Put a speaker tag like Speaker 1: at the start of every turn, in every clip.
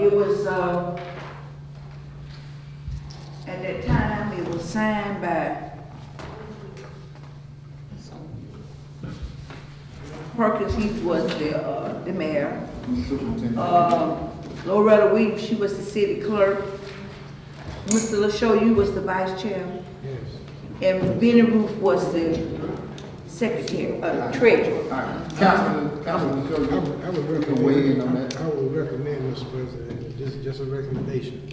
Speaker 1: It was, uh, at that time, it was signed by Perkins Heath was the, uh, the mayor. Uh, Loretta Weep, she was the city clerk. Mr. LaShaw, you was the vice chair. And Benny Roof was the secretary, uh, treasurer.
Speaker 2: Councilman, Councilman Shirley,
Speaker 3: I would, I would
Speaker 2: you can weigh in on
Speaker 3: recommend,
Speaker 2: that.
Speaker 3: I would recommend, Mr. President, just, just a recommendation,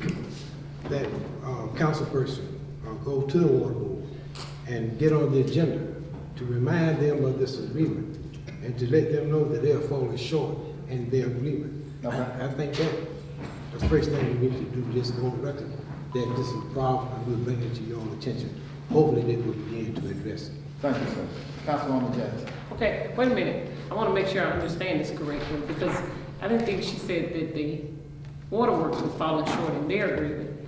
Speaker 3: that, uh, councilperson, uh, go to the water board and get on the agenda to remind them of this agreement and to let them know that they are falling short in their agreement.
Speaker 2: Okay.
Speaker 3: I I think that, the first thing we need to do, just go on record, that this is a problem, and we'll bring it to your attention. Hopefully, they will begin to address it.
Speaker 2: Thank you, sir. Councilwoman Jackson.
Speaker 4: Okay, wait a minute. I want to make sure I understand this correctly because I didn't think she said that the waterworks was falling short in their agreement.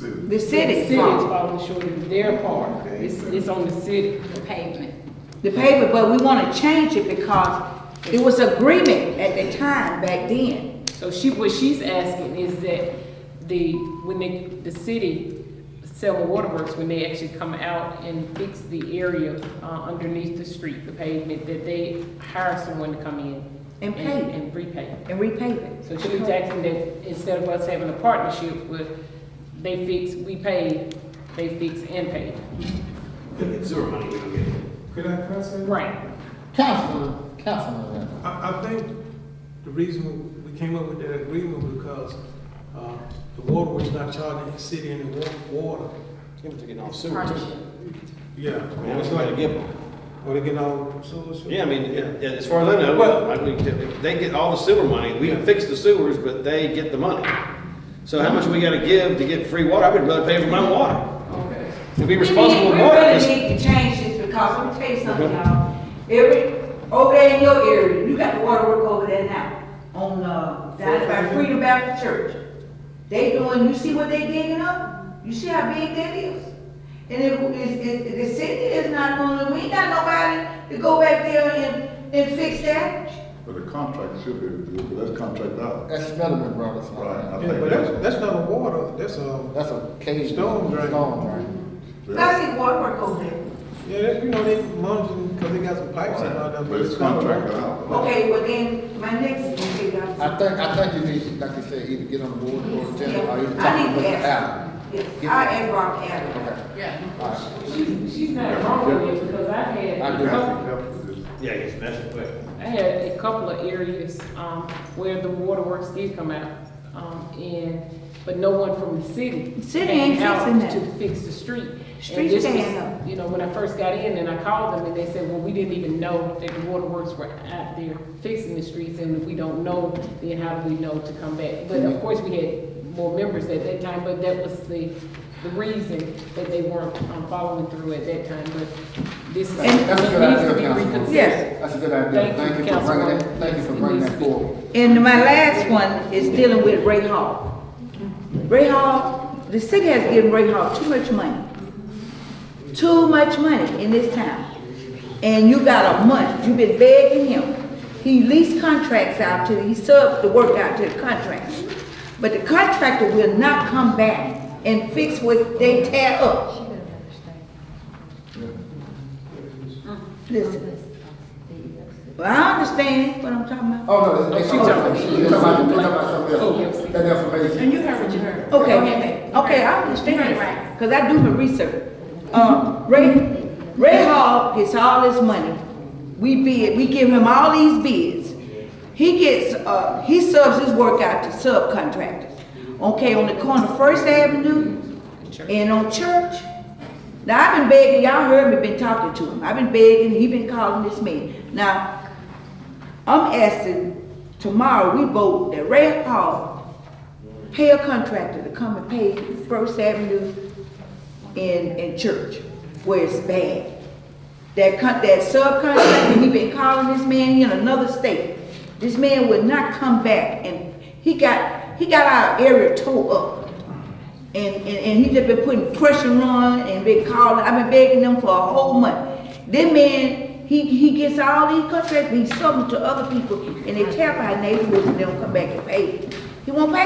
Speaker 1: The
Speaker 4: The
Speaker 1: city's
Speaker 4: city is
Speaker 1: fault.
Speaker 4: falling short in their part. It's, it's on the city. The pavement.
Speaker 1: the paper, but we wanna change it because it was agreement at the time back then.
Speaker 4: So she, what she's asking is that the, when they, the city, Selma Waterworks, when they actually come out and fix the area uh, underneath the street, the pavement, that they hire someone to come in.
Speaker 1: And pave it.
Speaker 4: And repave.
Speaker 1: And repave it.
Speaker 4: So she was asking that instead of us having a partnership with, they fix, we pay, they fix and pay.
Speaker 5: Zero money we don't get.
Speaker 6: Could I, could I say?
Speaker 4: Right.
Speaker 2: Councilman, Councilman Randall.
Speaker 6: I, I think the reason we came up with that agreement was because, uh, the water was not charging the city any wa- water.
Speaker 5: Give them to get off sewer too.
Speaker 6: Yeah.
Speaker 5: Yeah,
Speaker 6: It's
Speaker 5: we gotta
Speaker 6: like,
Speaker 5: give them.
Speaker 6: well, they get all sewer. sewer.
Speaker 5: Yeah, I mean, it- it- as far as I know,
Speaker 6: Well-
Speaker 5: I mean, if they get all the sewer money. We can fix the sewers, but they get the money. So how much we gotta give to get free water? I would rather pay for my water. To be
Speaker 1: We
Speaker 5: responsible with
Speaker 1: need-
Speaker 5: water.
Speaker 1: We
Speaker 5: is-
Speaker 1: really need to change this because let me tell you something, y'all. Every, over there in your area, you got the water work over there now on, uh, down by Freedom Baptist Church. They doing, you see what they digging up? You see how big that is? And if, if, if the city is not gonna, we ain't got nobody to go back there and, and fix that.
Speaker 7: But the contract should be, but that's contract out.
Speaker 2: That's Smithman Brothers.
Speaker 7: Right, I
Speaker 6: Yeah,
Speaker 7: think
Speaker 6: but that's,
Speaker 7: that's,
Speaker 6: that's not a water, that's um, a,
Speaker 2: That's a cage.
Speaker 6: Stone drain.
Speaker 2: Stone drain.
Speaker 7: that's,
Speaker 1: I see water work over there.
Speaker 6: yeah, that, you know, they monitoring, because they got some pipes and all that.
Speaker 7: but it's contract out.
Speaker 1: Okay, well then, my next one, okay, guys.
Speaker 2: I think, I think you need, to, like you said, either get on the board or attend, or you
Speaker 1: Yeah,
Speaker 2: talk
Speaker 1: I need
Speaker 2: to
Speaker 1: to
Speaker 2: Mr.
Speaker 1: ask.
Speaker 2: Allen.
Speaker 1: Yes, I am Rob Allen.
Speaker 2: Okay.
Speaker 4: Yeah.
Speaker 2: All right.
Speaker 4: She's, she's not wrong with it because I've
Speaker 2: I
Speaker 4: had,
Speaker 2: do.
Speaker 4: a couple-
Speaker 7: But
Speaker 5: Yeah, it's messy, but.
Speaker 4: I had a couple of areas, um, where the waterworks did come out. Um, and, but no one from the city.
Speaker 1: City
Speaker 4: came
Speaker 1: ain't fixing
Speaker 4: out
Speaker 1: that.
Speaker 4: To fix the street.
Speaker 1: Street
Speaker 4: And this
Speaker 1: stand
Speaker 4: was,
Speaker 1: up.
Speaker 4: You know, when I first got in and I called them and they said, well, we didn't even know that the waterworks were out there fixing the streets and if we don't know, then how do we know to come back? But of course, we had more members at that time, but that was the, the reason that they weren't um, following through at that time, but this is.
Speaker 2: And- That's a good
Speaker 4: needs to
Speaker 2: idea,
Speaker 4: be
Speaker 2: Councilwoman.
Speaker 4: reconsidered.
Speaker 1: Yes.
Speaker 2: That's a good idea.
Speaker 4: Thank
Speaker 2: Thank
Speaker 4: you,
Speaker 2: you for bringing
Speaker 4: Councilwoman.
Speaker 2: that, thank you for
Speaker 4: Yes, it
Speaker 2: bringing
Speaker 4: needs
Speaker 2: that
Speaker 4: to be.
Speaker 2: forward.
Speaker 1: And my last one is dealing with Ray Hall. Ray Hall, the city has given Ray Hall too much money. Too much money in this town. And you got a month, you've been begging him. He leased contracts out to, he subbed the work out to the contractors. But the contractor will not come back and fix what they tear up. Listen, well, I understand what I'm talking about.
Speaker 2: Oh, no, they, they,
Speaker 4: She
Speaker 2: they
Speaker 4: talking-
Speaker 2: talking about, they talking about something else.
Speaker 4: Cool.
Speaker 2: That information.
Speaker 8: And you heard what you heard.
Speaker 1: Okay, okay, I understand,
Speaker 8: Right, right.
Speaker 1: because I do my research. Um, Ray, Ray Hall gets all his money. We bid, we give him all these bids. He gets, uh, he subs his work out to subcontractors. Okay, on the corner of First Avenue and on Church. Now, I've been begging, y'all heard me, been talking to him. I've been begging, he been calling this man. Now, I'm asking tomorrow, we vote that Ray Hall pay a contractor to come and pay First Avenue and, and Church, where it's bad. That con, that subcontractor, he been calling this man in another state. This man would not come back and he got, he got our area tore up. And, and, and he just been putting pressure on and been calling, I've been begging them for a whole month. Then man, he, he gets all these contracts, he sells them to other people, and they tell our neighborhoods, and they don't come back and pay. He won't pay